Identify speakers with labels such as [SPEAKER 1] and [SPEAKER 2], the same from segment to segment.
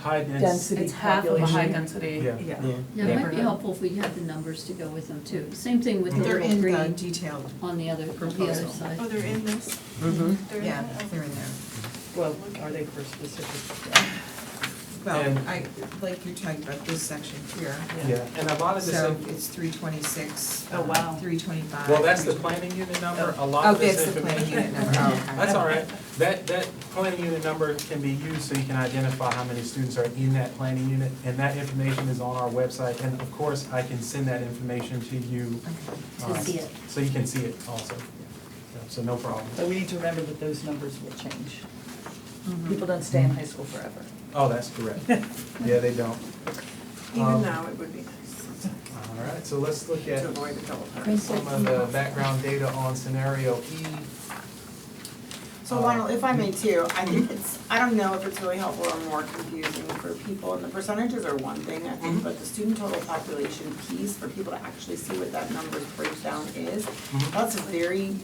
[SPEAKER 1] high density.
[SPEAKER 2] Density.
[SPEAKER 3] It's half of a high
[SPEAKER 2] population.
[SPEAKER 3] density.
[SPEAKER 1] Yeah,
[SPEAKER 4] Yeah.
[SPEAKER 1] yeah.
[SPEAKER 5] Yeah, it might be
[SPEAKER 3] Neighborhood.
[SPEAKER 5] helpful if we had the numbers to go with them too. Same thing with the
[SPEAKER 4] They're
[SPEAKER 5] little
[SPEAKER 4] in the
[SPEAKER 5] green
[SPEAKER 4] detailed.
[SPEAKER 5] on the other, on the other
[SPEAKER 3] Proposal.
[SPEAKER 5] side.
[SPEAKER 6] Oh, they're in this?
[SPEAKER 4] Mm-hmm.
[SPEAKER 6] They're in
[SPEAKER 4] Yeah,
[SPEAKER 6] that? Okay.
[SPEAKER 4] they're in there.
[SPEAKER 2] Well, are they for specific?
[SPEAKER 4] Well,
[SPEAKER 1] And-
[SPEAKER 4] I, like you're talking about this section here,
[SPEAKER 1] Yeah, and a lot of this,
[SPEAKER 4] so
[SPEAKER 1] inf-
[SPEAKER 4] it's three twenty-six,
[SPEAKER 7] uh,
[SPEAKER 3] Oh, wow.
[SPEAKER 4] three twenty-five.
[SPEAKER 1] well, that's the planning unit number, a lot
[SPEAKER 4] Oh,
[SPEAKER 1] of this.
[SPEAKER 4] that's the planning
[SPEAKER 1] information-
[SPEAKER 4] unit number, oh, okay.
[SPEAKER 1] That's all right. That, that planning unit number can be used so you can identify how many students are in that planning unit. And that information is on our website. And of course, I can send that information to you.
[SPEAKER 4] Okay.
[SPEAKER 5] To
[SPEAKER 1] um,
[SPEAKER 5] see it.
[SPEAKER 1] So you can see it also. Yeah, So no problem.
[SPEAKER 2] But we need to remember that those numbers will change. People don't stay in high school forever.
[SPEAKER 1] Oh, that's correct. Yeah, they don't.
[SPEAKER 6] Even
[SPEAKER 1] Um,
[SPEAKER 6] now, it would be nice
[SPEAKER 1] All right, so let's look at
[SPEAKER 6] to avoid a double hard.
[SPEAKER 1] some of the background data on scenario E.
[SPEAKER 7] So Lionel, if I may too, I think it's, I don't know if it's really helpful or more confusing for people, and the percentages are one thing, I
[SPEAKER 1] Mm-hmm.
[SPEAKER 7] think, but the student total population piece, for people to actually see what that number breakdown is,
[SPEAKER 1] Mm-hmm.
[SPEAKER 7] that's a very,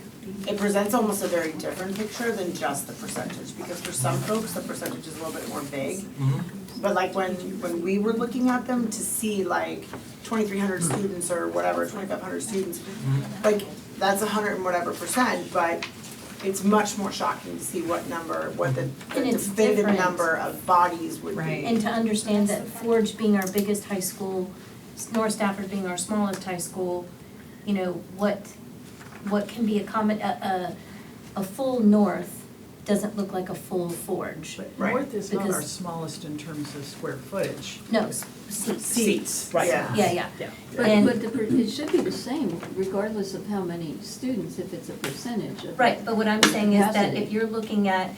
[SPEAKER 7] it presents almost a very different picture than just the percentage, because for some folks, the percentage is a little bit more vague.
[SPEAKER 1] Mhm.
[SPEAKER 7] But like when, when we were looking at them to see like twenty-three hundred students or whatever, twenty-five hundred students,
[SPEAKER 1] Mm-hmm.
[SPEAKER 7] like, that's a hundred and whatever percent, but it's much more shocking to see what number, what the the
[SPEAKER 8] And it's
[SPEAKER 7] definitive
[SPEAKER 8] different.
[SPEAKER 7] number of bodies would be.
[SPEAKER 4] Right.
[SPEAKER 8] And to understand that Forge being our biggest high school, North Stafford being our smallest high school, you know, what, what can be a common, a, a, a full North doesn't look like a full Forge.
[SPEAKER 2] But
[SPEAKER 7] Right.
[SPEAKER 2] North is not our
[SPEAKER 8] Because-
[SPEAKER 2] smallest in terms of square footage.
[SPEAKER 8] No, s- seats.
[SPEAKER 2] Seats, right.
[SPEAKER 7] Yeah.
[SPEAKER 8] Yeah, yeah.
[SPEAKER 2] Yeah.
[SPEAKER 5] But,
[SPEAKER 8] And-
[SPEAKER 5] but the, per- it should be the same regardless of how many students, if it's a percentage of.
[SPEAKER 8] Right, but what I'm saying is that
[SPEAKER 5] Capacity.
[SPEAKER 8] if you're looking at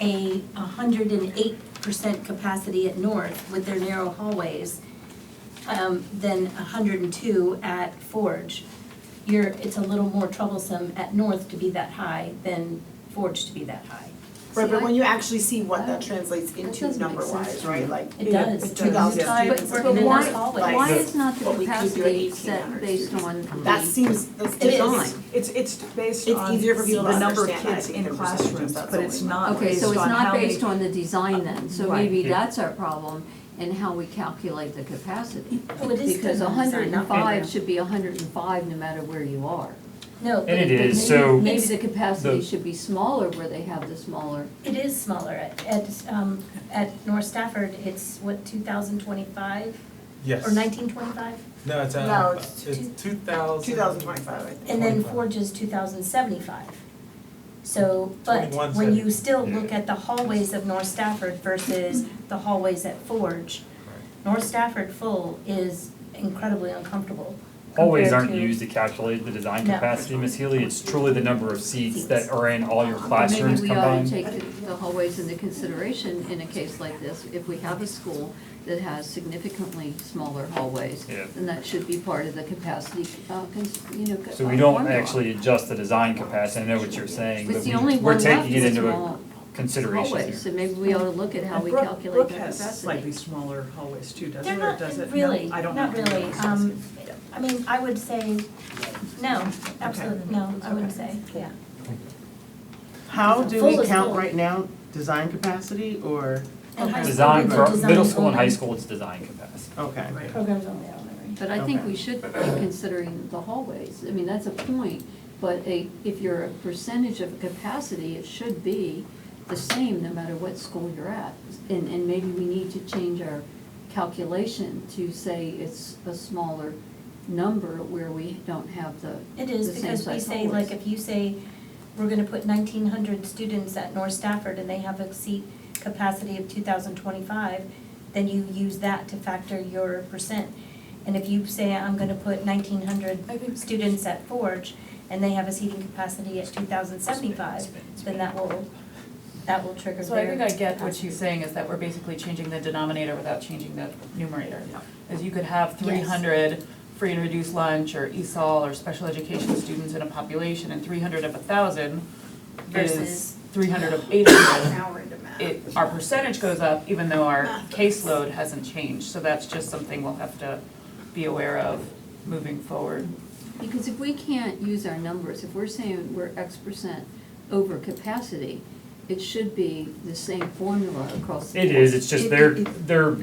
[SPEAKER 8] a hundred and eight percent capacity at North with their narrow hallways, um, then hundred and two at Forge, you're, it's a little more troublesome at North to be that high than Forge to be that high.
[SPEAKER 7] Right,
[SPEAKER 5] See,
[SPEAKER 7] but
[SPEAKER 5] I-
[SPEAKER 7] when you actually see what that
[SPEAKER 5] Oh,
[SPEAKER 7] translates into
[SPEAKER 5] doesn't make
[SPEAKER 7] number
[SPEAKER 5] sense
[SPEAKER 7] wise,
[SPEAKER 5] to
[SPEAKER 7] right,
[SPEAKER 5] me.
[SPEAKER 7] like
[SPEAKER 8] It does.
[SPEAKER 7] two thousand
[SPEAKER 4] Yeah.
[SPEAKER 5] But,
[SPEAKER 7] students.
[SPEAKER 5] but
[SPEAKER 7] are
[SPEAKER 8] in
[SPEAKER 5] why,
[SPEAKER 8] those hallways.
[SPEAKER 5] why is not the
[SPEAKER 7] But we could do it
[SPEAKER 5] capacity set
[SPEAKER 7] 1800
[SPEAKER 5] based on the?
[SPEAKER 7] That seems, that's
[SPEAKER 8] It is.
[SPEAKER 7] design.
[SPEAKER 2] It's, it's based
[SPEAKER 7] It's
[SPEAKER 2] on
[SPEAKER 7] easier for people
[SPEAKER 2] the
[SPEAKER 7] to
[SPEAKER 2] number of
[SPEAKER 7] understand, I
[SPEAKER 2] kids
[SPEAKER 7] think,
[SPEAKER 2] in
[SPEAKER 7] the percentages,
[SPEAKER 2] classrooms,
[SPEAKER 7] that's
[SPEAKER 2] but
[SPEAKER 7] the
[SPEAKER 2] it's
[SPEAKER 7] only
[SPEAKER 2] not
[SPEAKER 5] Okay,
[SPEAKER 2] based
[SPEAKER 5] so
[SPEAKER 2] on
[SPEAKER 5] it's
[SPEAKER 2] how
[SPEAKER 5] not
[SPEAKER 2] many.
[SPEAKER 5] based on the design then, so
[SPEAKER 2] Right.
[SPEAKER 5] maybe that's our problem and how we calculate the capacity.
[SPEAKER 8] Well, it is
[SPEAKER 5] Because
[SPEAKER 8] still not
[SPEAKER 5] hundred
[SPEAKER 8] designed,
[SPEAKER 5] and
[SPEAKER 8] not
[SPEAKER 5] five
[SPEAKER 8] program.
[SPEAKER 5] should be hundred and five no matter where you are.
[SPEAKER 8] No,
[SPEAKER 9] And it
[SPEAKER 5] But
[SPEAKER 9] is,
[SPEAKER 5] maybe-
[SPEAKER 9] so,
[SPEAKER 5] Maybe the capacity
[SPEAKER 9] the-
[SPEAKER 5] should be smaller where they have the smaller.
[SPEAKER 8] it is smaller at, at, um, at North Stafford, it's what, two thousand twenty-five
[SPEAKER 1] Yes.
[SPEAKER 8] or nineteen twenty-five?
[SPEAKER 1] No, it's,
[SPEAKER 7] No,
[SPEAKER 1] uh,
[SPEAKER 7] it's
[SPEAKER 1] it's
[SPEAKER 8] two-
[SPEAKER 1] two thousand.
[SPEAKER 7] Two thousand twenty-five, I think.
[SPEAKER 8] And then
[SPEAKER 1] 25.
[SPEAKER 8] Forge is two thousand seventy-five. So, but
[SPEAKER 1] 21
[SPEAKER 8] when
[SPEAKER 1] seventy.
[SPEAKER 8] you still look at the hallways of North Stafford versus the hallways at Forge, North Stafford full is incredibly uncomfortable.
[SPEAKER 9] hallways
[SPEAKER 8] compared
[SPEAKER 9] aren't
[SPEAKER 8] to-
[SPEAKER 9] used to calculate the design
[SPEAKER 8] No.
[SPEAKER 9] capacity, Ms. Healy, it's truly the number of seats
[SPEAKER 8] Seats.
[SPEAKER 9] that are in all your
[SPEAKER 5] But
[SPEAKER 9] classrooms combined.
[SPEAKER 5] Maybe we ought to take the- the hallways into consideration in a case like this. If we have a school that has significantly smaller hallways,
[SPEAKER 9] Yeah.
[SPEAKER 5] then that should be part of the capacity, uh, cons- you know,
[SPEAKER 9] So we
[SPEAKER 5] uh,
[SPEAKER 9] don't
[SPEAKER 5] formula.
[SPEAKER 9] actually adjust the design capacity, I know what you're saying,
[SPEAKER 5] It's
[SPEAKER 9] but
[SPEAKER 5] the only
[SPEAKER 9] we, we're
[SPEAKER 5] one left
[SPEAKER 9] taking it
[SPEAKER 5] is
[SPEAKER 9] into a
[SPEAKER 5] small
[SPEAKER 9] consideration here.
[SPEAKER 5] hallways, so maybe we ought to look at how
[SPEAKER 2] And
[SPEAKER 5] we
[SPEAKER 2] Brooke-
[SPEAKER 5] calculate the
[SPEAKER 2] Brooke has slightly
[SPEAKER 5] capacity.
[SPEAKER 2] smaller hallways too, doesn't
[SPEAKER 8] They're
[SPEAKER 2] it, or
[SPEAKER 8] not,
[SPEAKER 2] does it? No,
[SPEAKER 8] really,
[SPEAKER 2] I don't
[SPEAKER 8] not
[SPEAKER 2] know.
[SPEAKER 8] really, um, I mean, I would say, no, absolutely, no, I wouldn't say, yeah.
[SPEAKER 10] How do
[SPEAKER 8] Full
[SPEAKER 10] we
[SPEAKER 8] is
[SPEAKER 10] count
[SPEAKER 8] full.
[SPEAKER 10] right now, design capacity or,
[SPEAKER 8] And high school
[SPEAKER 9] Design,
[SPEAKER 8] is a
[SPEAKER 9] for
[SPEAKER 8] design
[SPEAKER 9] middle school and high
[SPEAKER 8] only.
[SPEAKER 9] school, it's design capacity.
[SPEAKER 10] okay.
[SPEAKER 8] Programs only elementary.
[SPEAKER 5] But I think
[SPEAKER 10] Okay.
[SPEAKER 5] we should be considering the hallways. I mean, that's a point, but a, if you're a percentage of capacity, it should be the same no matter what school you're at. And, and maybe we need to change our calculation to say it's a smaller number where we don't have the,
[SPEAKER 8] It is,
[SPEAKER 5] the same
[SPEAKER 8] because we
[SPEAKER 5] size
[SPEAKER 8] say, like,
[SPEAKER 5] hallways.
[SPEAKER 8] if you say, we're gonna put nineteen hundred students at North Stafford and they have a seat capacity of two thousand twenty-five, then you use that to factor your percent. And if you say, I'm gonna put nineteen hundred students at Forge and they have a seating capacity at two thousand seventy-five, then that will, that will trigger their.
[SPEAKER 3] So I think I get what she's saying is that we're basically changing the denominator without changing the numerator. Is you could have three hundred free and reduced lunch or E ESOL or special education students in a population and three hundred of a thousand
[SPEAKER 8] Versus-
[SPEAKER 3] is three hundred of eight hundred.
[SPEAKER 7] Now we're into math.
[SPEAKER 3] It, our percentage goes up even though our caseload hasn't changed, so that's just something we'll have to be aware of moving forward.
[SPEAKER 5] Because if we can't use our numbers, if we're saying we're X percent over capacity,
[SPEAKER 11] it should be the same formula across the
[SPEAKER 5] It
[SPEAKER 11] board.
[SPEAKER 5] is, it's just they're, they're